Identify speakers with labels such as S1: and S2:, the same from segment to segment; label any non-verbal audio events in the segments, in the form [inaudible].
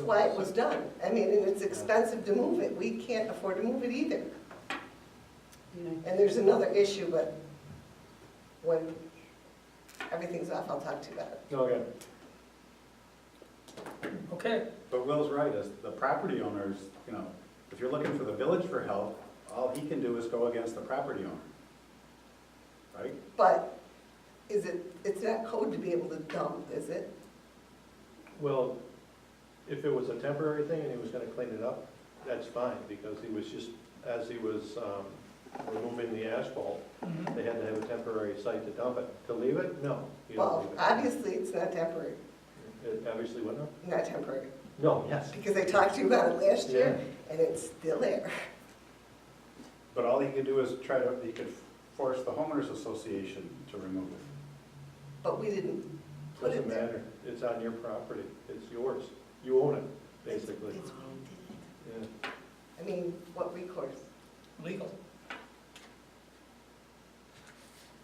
S1: why it was done. I mean, and it's expensive to move it. We can't afford to move it either. And there's another issue, but when everything's off, I'll talk to you about it.
S2: Okay,
S3: Okay,
S2: but Will's right, as the property owners, you know, if you're looking for the village for help, all he can do is go against the property owner. Right?
S1: But is it, it's not code to be able to dump, is it?
S4: Well, if it was a temporary thing and he was gonna clean it up, that's fine, because he was just, as he was, um, removing the asphalt,
S1: Mm-hmm.
S4: they had to have a temporary site to dump it. To leave it? No, you don't
S1: Well,
S4: leave it.
S1: obviously, it's not temporary,
S4: It obviously would not?
S1: not temporary,
S4: No, yes.
S1: because I talked to you about it last year, and it's still there.
S2: But all he can do is try to, he could force the homeowners association to remove it.
S1: But we didn't put
S4: Doesn't
S1: it there.
S4: matter, it's on your property, it's yours, you own it, basically.
S3: Um,
S1: It's- it's-
S4: Yeah.
S1: I mean, what recourse?
S3: legal.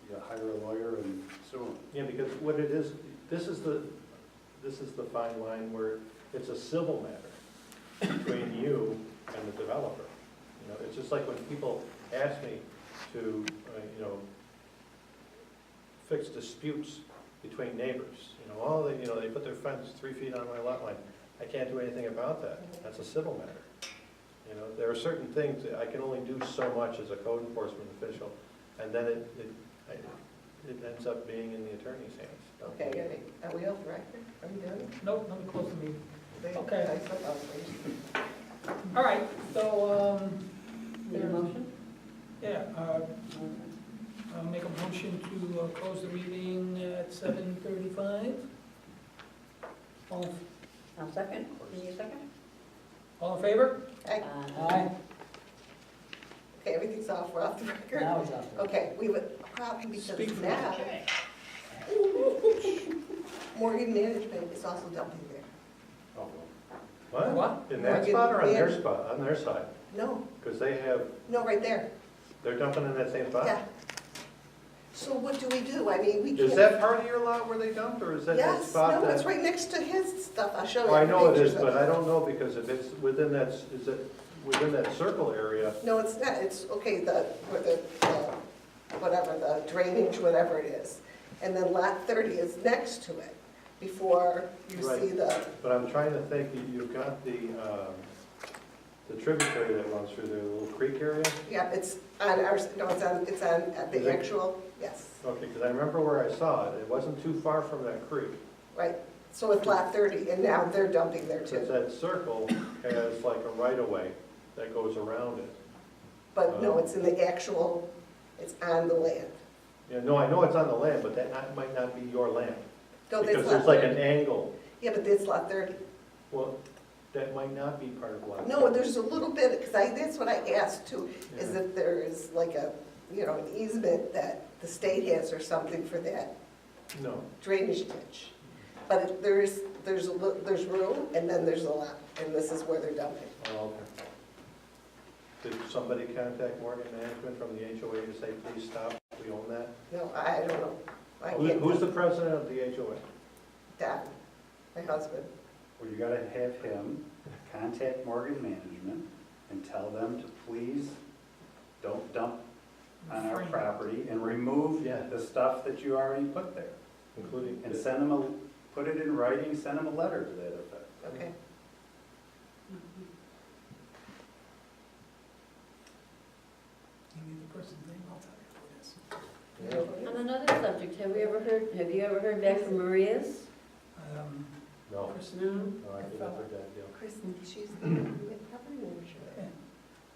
S2: You gotta hire a lawyer and sue him.
S4: Yeah, because what it is, this is the, this is the fine line where it's a civil matter between you and the developer. You know, it's just like when people ask me to, uh, you know, fix disputes between neighbors. You know, all they, you know, they put their fence three feet on my lot line. I can't do anything about that. That's a civil matter. You know, there are certain things that I can only do so much as a code enforcement official, and then it, it, I- it ends up being in the attorney's hands.
S1: Okay, are we- are we off the record? Are we done?
S3: Nope, let me close the meeting.
S1: They-
S3: Okay.
S1: I thought that was-
S3: All right, so, um,
S5: Need a motion?
S3: yeah, uh, I'll make a motion to uh, close the meeting at seven thirty-five. All,
S5: I'll second. Can you second? Uh,
S3: all in favor?
S1: Okay, Okay, everything's off, we're off the record.
S5: Now it's up.
S1: Okay, we have a problem
S3: Speak
S1: because
S3: for
S1: now [laughs] Morgan Management is also dumping there.
S2: Oh,
S4: What?
S3: What?
S4: In that spot or on their spot, on their side?
S1: No,
S4: Because they have,
S1: no, right there,
S4: they're dumping in that same spot?
S1: yeah. So what do we do? I mean, we can't.
S4: Is that part of your lot where they dumped, or is that that
S1: Yes,
S4: spot that?
S1: no, it's right next to his stuff, I'll show you.
S4: Well, I know it is,
S1: pictures of
S4: but I don't know, because if it's within that, s- is it within that circle area?
S1: No, it's not, it's, okay, the, where the, the- whatever, the drainage, whatever it is. And then lot 30 is next to it, before you
S4: Right.
S1: see the,
S4: But I'm trying to think, you- you've got the, um, the tributary that runs through the little creek area?
S1: yeah, it's on our, no, it's on, it's on at
S4: Is
S1: the
S4: it?
S1: actual, yes,
S4: Okay, because I remember where I saw it, it wasn't too far from that creek.
S1: right. So it's lot 30, and now they're dumping there
S4: Because
S1: too.
S4: that circle has like a right-of-way that goes around it.
S1: But
S4: Oh.
S1: no, it's in the actual, it's on the land.
S4: Yeah, no, I know it's on the land, but that not- might not be your land.
S1: No, that's
S4: Because
S1: lot
S4: there's like an
S1: 30.
S4: angle,
S1: Yeah, but that's lot 30.
S4: well, that might not be part of lot.
S1: No, there's a little bit, because I, that's what I asked too, is if there is like a, you know, an easement that the state has or something for that
S4: No,
S1: drainage ditch. But if there is, there's a, li- there's room, and then there's a lot, and this is where they're dumping.
S4: oh, okay. Did somebody contact Morgan Management from the HOA to say, please stop, we own that?
S1: No, I don't know. I
S4: Who-
S1: can't-
S4: Who's the president of the HOA?
S1: Dad, my husband.
S2: Well, you gotta have him contact Morgan Management and tell them to please don't dump on our
S3: Frank.
S2: property and remove
S4: Yeah.
S2: the stuff that you already put there.
S4: Including,
S2: And send them a, put it in writing, send them a letter to that effect.
S1: Okay.
S3: You need the person's name, I'll tell you who it is.
S5: On another subject, have we ever heard, have you ever heard back from Maria's?
S3: Um,
S4: no,
S3: Kristen,
S4: no, I think that's a dead deal.
S1: Kristen, she's the property manager.
S3: yeah,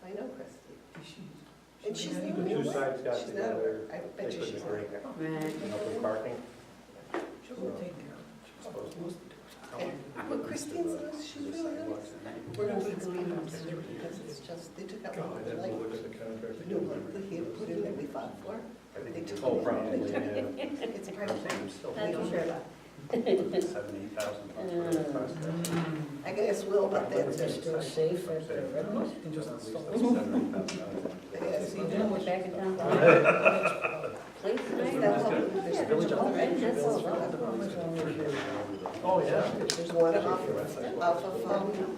S1: I know Kristen.
S3: is she?
S1: And she's
S3: the
S1: the
S4: The
S1: only
S4: two
S1: one.
S4: sides got
S1: She's not,
S4: together,
S1: I bet you
S4: couldn't
S1: she's not
S4: agree.
S1: here.
S5: Right.
S4: and open parking.
S3: She will take care of it. She's supposed to.
S1: Well, Christine's, she's really nice. We're gonna need to leave them soon because it's just, they took out what we liked.
S4: the contract.
S1: You know, what we had put in that we fought for,
S2: I think
S1: They
S2: it's
S1: took
S2: all
S4: Oh,
S1: it.
S2: probably,
S1: They
S2: yeah.
S1: [laughs] it's part
S2: I'm
S1: of it.
S2: saying still
S5: I don't care [laughs] about.
S2: seven, eight thousand bucks for that process.
S1: I can ask Will about that
S2: They're
S1: too.
S2: still safe at the
S3: I don't know, you can just
S2: At least
S3: install
S2: that's
S3: it.
S1: I can ask
S2: $7,000.
S1: Will.
S5: You know, we're back in town. Please,
S1: Is
S2: [laughs]
S5: tonight.
S1: that how- there's a bunch of other
S5: Right, that's
S1: bills
S5: all.
S1: for that.
S2: Over the
S4: Oh, yeah.
S1: There's one off of, off of, um,